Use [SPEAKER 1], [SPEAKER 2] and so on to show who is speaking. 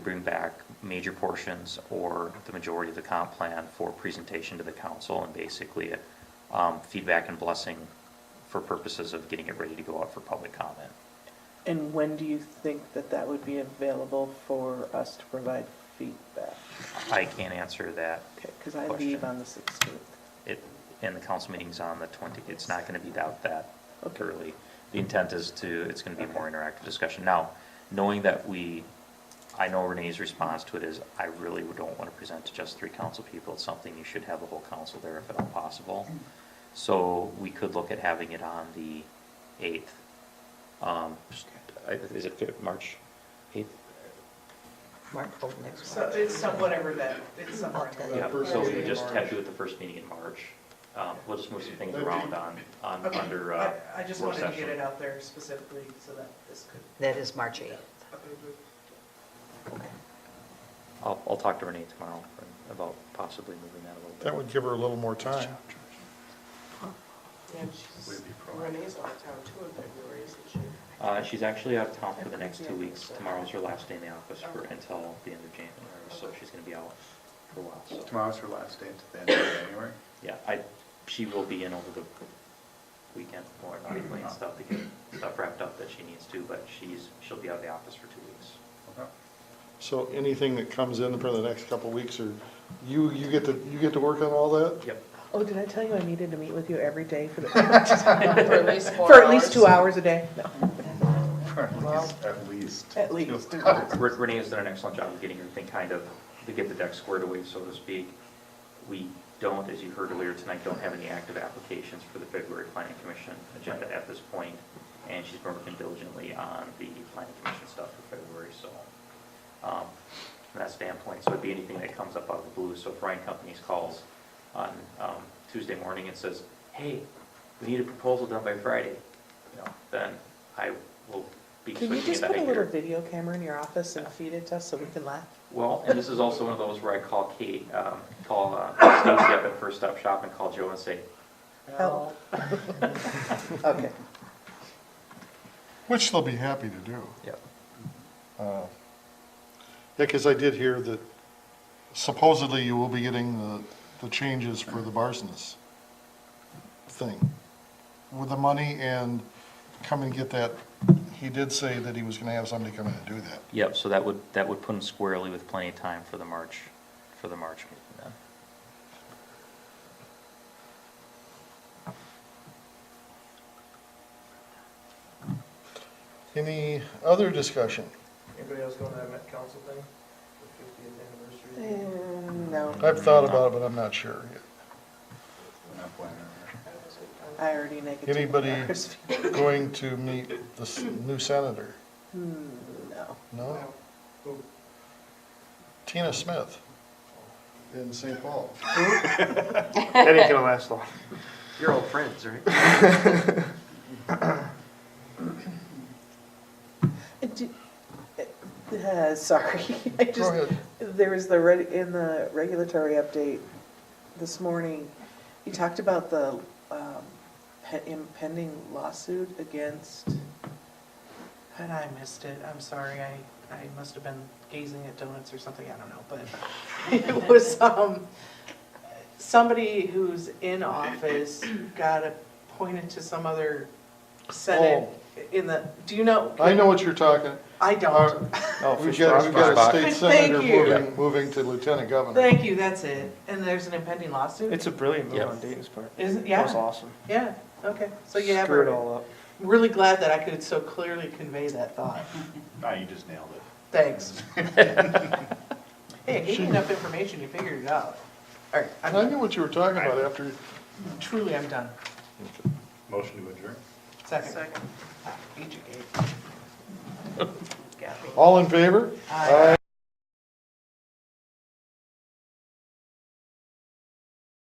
[SPEAKER 1] bring back major portions or the majority of the comp plan for presentation to the council and basically um, feedback and blessing for purposes of getting it ready to go out for public comment.
[SPEAKER 2] And when do you think that that would be available for us to provide feedback?
[SPEAKER 1] I can't answer that.
[SPEAKER 2] Okay, because I
[SPEAKER 1] Question.
[SPEAKER 2] leave on the 16th.
[SPEAKER 1] It, and the council meeting's on the 20, it's not going to be out that
[SPEAKER 2] Okay.
[SPEAKER 1] early. The intent is to, it's going to be a more interactive discussion. Now, knowing that we, I know Renee's response to it is, I really don't want to present to just three council people. It's something you should have the whole council there if at all possible. So we could look at having it on the 8th. Um, I- Is it Feb- March 8th?
[SPEAKER 3] Mark Holt next
[SPEAKER 4] So
[SPEAKER 3] one.
[SPEAKER 4] it's some, whatever that, it's somewhere. in the-
[SPEAKER 1] Yeah, so we just
[SPEAKER 4] March.
[SPEAKER 1] have to do it the first meeting in March. Um, We'll just move some things around on, on,
[SPEAKER 4] Okay,
[SPEAKER 1] under uh,
[SPEAKER 4] I I just
[SPEAKER 1] work
[SPEAKER 4] wanted to get
[SPEAKER 1] session.
[SPEAKER 4] it out there specifically so that this could.
[SPEAKER 3] That is March 8th. Okay.
[SPEAKER 1] I'll, I'll talk to Renee tomorrow for- about possibly moving that a little bit.
[SPEAKER 5] That would give her a little more time.
[SPEAKER 6] And she's, Renee's out of town too in February, isn't she?
[SPEAKER 1] Uh, she's actually out of town for the next two weeks. Tomorrow's her last day in the office for, until the end of January, so she's gonna be out for a while, so.
[SPEAKER 7] Tomorrow's her last day until the end of January.
[SPEAKER 1] Yeah, I, she will be in over the weekend, more body plan
[SPEAKER 5] Uh-huh.
[SPEAKER 1] stuff to get stuff wrapped up that she needs to, but she's, she'll be out of the office for two weeks.
[SPEAKER 7] Okay.
[SPEAKER 5] So anything that comes in for the next couple of weeks, or you, you get to, you get to work on all that?
[SPEAKER 1] Yep.
[SPEAKER 2] Oh, did I tell you I needed to meet with you every day for the, for
[SPEAKER 6] For at least four
[SPEAKER 2] at least two hours a day? No.
[SPEAKER 7] At least.
[SPEAKER 2] At least.
[SPEAKER 1] Re- Renee has done an excellent job of getting everything kind of, to get the deck squared away, so to speak. We don't, as you heard earlier tonight, don't have any active applications for the February Planning Commission agenda at this point, and she's been working diligently on the Planning Commission stuff for February, so, um, from that standpoint, so it'd be anything that comes up out of the blue, so if Ryan Companies calls on, um, Tuesday morning and says, hey, we need a proposal done by Friday, you know, then I will be
[SPEAKER 2] Can you
[SPEAKER 1] switching
[SPEAKER 2] just
[SPEAKER 1] that
[SPEAKER 2] put a little
[SPEAKER 1] here.
[SPEAKER 2] video camera in your office and feed it to us so we can laugh?
[SPEAKER 1] Well, and this is also one of those where I call Kate, um, call uh, Stacy up at First Stop Shop and call Joe and say,
[SPEAKER 2] Help. Okay.
[SPEAKER 5] Which they'll be happy to do.
[SPEAKER 1] Yep.
[SPEAKER 5] Uh, Yeah, because I did hear that supposedly you will be getting the, the changes for the Barsness thing. With the money and come and get that, he did say that he was gonna have somebody come in and do that.
[SPEAKER 1] Yep, so that would, that would put him squarely with plenty of time for the March, for the March meeting then.
[SPEAKER 5] Any other discussion?
[SPEAKER 4] Anybody else going to that Met Council thing, the 50th anniversary?
[SPEAKER 2] Mm, No,
[SPEAKER 5] I've thought about it, but I'm not sure yet.
[SPEAKER 7] We're not planning on
[SPEAKER 2] I already negative.
[SPEAKER 5] Anybody going to meet the s- new senator?
[SPEAKER 2] Hmm, no.
[SPEAKER 5] No? Tina Smith in St. Paul.
[SPEAKER 8] That ain't gonna last long.
[SPEAKER 1] You're old friends, right?
[SPEAKER 2] Uh, do- uh, uh, Sorry, I just,
[SPEAKER 5] ahead.
[SPEAKER 2] there was the, reg- in the regulatory update this morning, you talked about the um, pe- impending lawsuit against,
[SPEAKER 4] And I missed it, I'm sorry, I, I must have been gazing at donuts or something, I don't know, but it was, um, somebody who's in office got appointed to some other senate in the, do you know?
[SPEAKER 5] Oh. I know what you're talking.
[SPEAKER 4] I
[SPEAKER 5] Uh,
[SPEAKER 4] don't.
[SPEAKER 5] We've got, we've got a state
[SPEAKER 4] Thank
[SPEAKER 5] senator
[SPEAKER 4] you.
[SPEAKER 5] moving, moving to lieutenant governor.
[SPEAKER 4] Thank you, that's it. And there's an impending lawsuit?
[SPEAKER 8] It's a brilliant move
[SPEAKER 1] Yeah.
[SPEAKER 8] on Dayton's part.
[SPEAKER 4] Isn't,
[SPEAKER 8] That was
[SPEAKER 4] yeah,
[SPEAKER 8] awesome.
[SPEAKER 4] yeah, okay. So you have,
[SPEAKER 8] Screw it all up.
[SPEAKER 4] really glad that I could so clearly convey that thought.
[SPEAKER 7] that. No, Ah, you just nailed it.
[SPEAKER 4] Thanks. Hey, I gave you enough information, you figured it out. All right, I'm
[SPEAKER 5] I
[SPEAKER 4] done.
[SPEAKER 5] knew what you were talking about after,
[SPEAKER 4] Truly, I'm done.
[SPEAKER 7] Motion to adjourn.
[SPEAKER 4] Second. Second. Beat you, Gabe.
[SPEAKER 5] all in favor?
[SPEAKER 4] Aye.